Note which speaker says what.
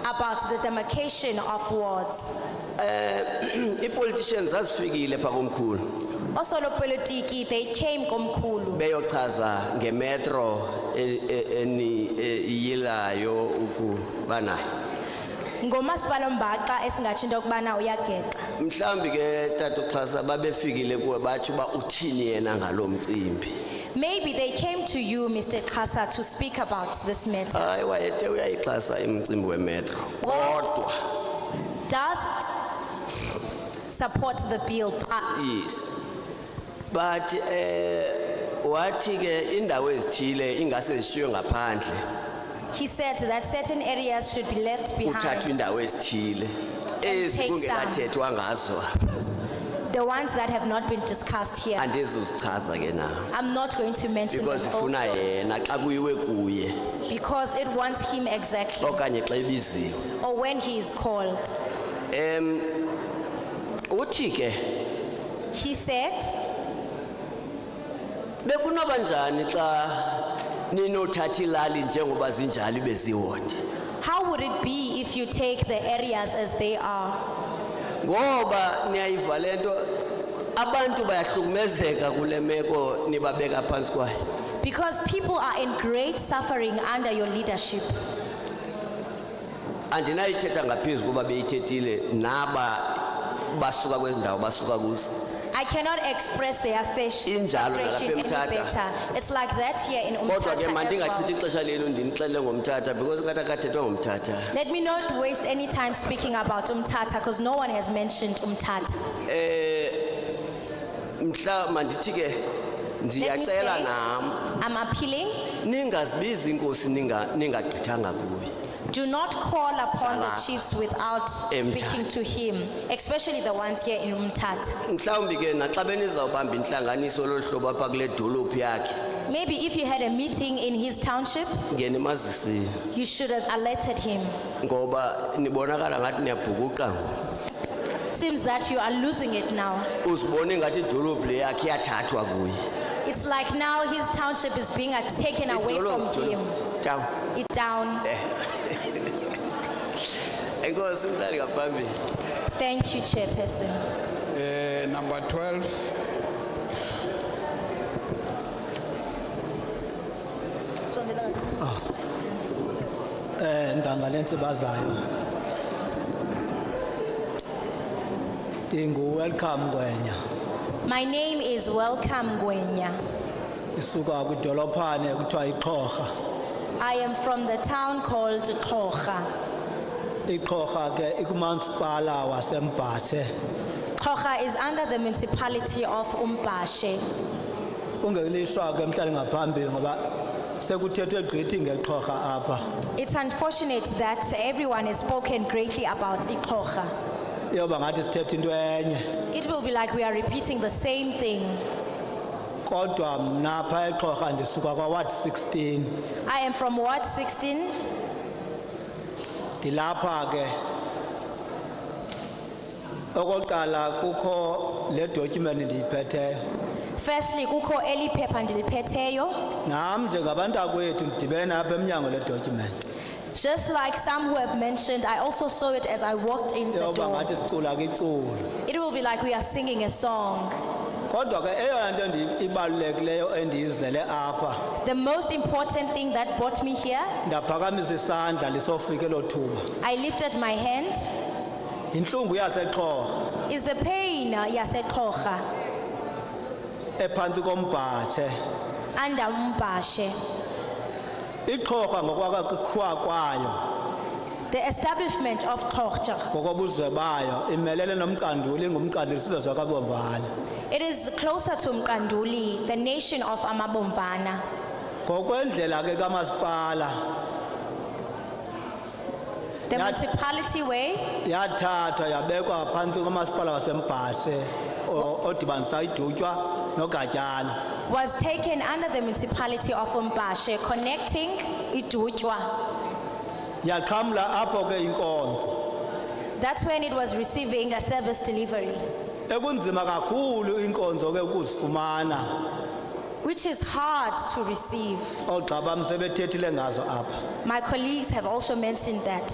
Speaker 1: about the demarcation of wards.
Speaker 2: i-politicians zazifikile phaa komkhulu
Speaker 1: Osolopolitiki, they came komkhulu
Speaker 2: beyochaza ngemetro e- e- eni- e- iyilayo ukuba nayo
Speaker 1: ngomasipala ombaxa esingatsho into yokubana uyageqa.
Speaker 2: mhlawumbi ke tata uxhasa babefikile kuwe batsho uba uthini yena ngalo mcimbi
Speaker 1: Maybe they came to you, Mr. Kasa, to speak about this matter.
Speaker 2: hayi wayete uyayixhasa imcimbi wemetro kodwa
Speaker 1: Does support the bill, Ah, but
Speaker 2: yes but eh wathi ke indawo ezithile ingase zishiywe ngaphandle
Speaker 1: he said that certain areas should be left
Speaker 2: kuthathwa
Speaker 1: behind.
Speaker 2: indawo ezithile
Speaker 1: take
Speaker 2: ezi
Speaker 1: some.
Speaker 2: kungekathethwa ngazo
Speaker 1: The ones that have not been discussed here.
Speaker 2: andizuzichaza ke nawo
Speaker 1: I'm not going to mention
Speaker 2: because
Speaker 1: them
Speaker 2: ifuna
Speaker 1: also.
Speaker 2: yena xa kuyiwe kuye
Speaker 1: Because it wants him exactly,
Speaker 2: okanye xa ibiziwe
Speaker 1: or when he is called.
Speaker 2: uthi ke
Speaker 1: He said,
Speaker 2: bekunoba njani xa ninothatha ilali njengoba zinjalo ibe ziwodi
Speaker 1: how would it be if you take the areas as they are?
Speaker 2: ngoba niyayiva le nto abantu bayahlukumezeka kule meko nibabeka phantsi kwayo
Speaker 1: Because people are in great suffering under your leadership.
Speaker 2: andinayithetha ngaphezu kuba beyithethile naba basuka kwezi ndawo basuka kuzo
Speaker 1: I cannot express their fish-
Speaker 2: Injalo nalapha
Speaker 1: frustration any
Speaker 2: eMthatha.
Speaker 1: better. It's like that here in
Speaker 2: kodwa ke
Speaker 1: Umtata as
Speaker 2: mandingachithi
Speaker 1: well.
Speaker 2: ixesha lenu ndinixelele ngomthatha because ngathi akathethwa ngomthatha
Speaker 1: Let me not waste any time speaking about Umtata because no one has mentioned Umtata.
Speaker 2: mhla mandithi ke ndiyacela
Speaker 1: say-
Speaker 2: nam
Speaker 1: I'm appealing,
Speaker 2: ningazibizi inkosi ninga- ningagqithanga kuyo
Speaker 1: do not call upon the
Speaker 2: Sala.
Speaker 1: chiefs without
Speaker 2: Emthatha.
Speaker 1: speaking to him, especially the ones here in Umtata.
Speaker 2: mhlawumbi ke naxa benizawubamba intlanganiso lolu hlobo apha kule dolophu yakhe
Speaker 1: Maybe if you had a meeting in his township,
Speaker 2: ngenimazisile
Speaker 1: you should have alerted him.
Speaker 2: ngoba nibonakala ngathi niyabhukuqa ngoku
Speaker 1: Seems that you are losing it now.
Speaker 2: uzibone ngathi idolophu le yakhe iyathathwa kuye
Speaker 1: It's like now his township is being uh, taken away from
Speaker 2: Idolophu,
Speaker 1: him.
Speaker 2: idolophu. Town.
Speaker 1: It down.
Speaker 2: enkosi mhlali ngaphambili
Speaker 1: Thank you, Chairperson.
Speaker 3: Eh, number 12,
Speaker 4: eh ndanga lensibazayo Dingu welcome kwenya
Speaker 1: My name is Welcome Gwenya.
Speaker 4: isuka kwidolophane kuthiwa iqhorha
Speaker 1: I am from the town called Kocha.
Speaker 4: iqhorha ke ikumansipala wasembathe
Speaker 1: Kocha is under the municipality of Umbashe.
Speaker 4: kungelishwa ke mhlali ngaphambili ngoba sekuthethwe gqithi ngeqhorha apha
Speaker 1: It's unfortunate that everyone has spoken greatly about Kocha.
Speaker 4: yoba ngathi sithethe into enye
Speaker 1: It will be like we are repeating the same thing.
Speaker 4: kodwa mna phaa eqhorha ndisuka kwaward 16
Speaker 1: I am from Ward 16.
Speaker 4: ndilapha ke okokuqala kukho le document ndiyiphetheyo
Speaker 1: Firstly, kuko eli phepha ndiliphetheyo.
Speaker 4: nam njengabantakwethu ndidibene apha emnyango le document
Speaker 1: Just like some who have mentioned, I also saw it as I walked in the
Speaker 4: yoba
Speaker 1: door.
Speaker 4: ngathi sicula kiculu
Speaker 1: It will be like we are singing a song.
Speaker 4: kodwa ke eyona nto ndi- ibalulekileyo endiyizele apha
Speaker 1: The most important thing that brought me here,
Speaker 4: ndaphakamisa isandla lisofika elo thuba
Speaker 1: I lifted my hand,
Speaker 4: yintlungu yasexhorha
Speaker 1: is the pain uh, yaseKhoga
Speaker 4: ephantsi kombhathe
Speaker 1: under Umbashe.
Speaker 4: iqhorha ngokwakakhiwa kwayo
Speaker 1: The establishment of Khoja.
Speaker 4: ngokobuzwe bayo imelele nomqanduli ngumqanduli sizwe kwabomvana
Speaker 1: It is closer to Mkanduli, the nation of Amabomvana.
Speaker 4: ngokwendlela ke kamasipala
Speaker 1: The
Speaker 4: Yeah.
Speaker 1: municipality way
Speaker 4: yathathwa yabekwa phantsi komasipala wasembhashe o- odibanisa idutywa nogatyana
Speaker 1: was taken under the municipality of Umbashe, connecting Idutjwa.
Speaker 4: yaqhamla apho ke inkonzo
Speaker 1: That's when it was receiving a service delivery,
Speaker 4: ekunzima kakhulu inkonzo ke ukuzifumana
Speaker 1: which is hard to receive.
Speaker 4: oogxabam sebethethile ngazo apha
Speaker 1: My colleagues have also mentioned that.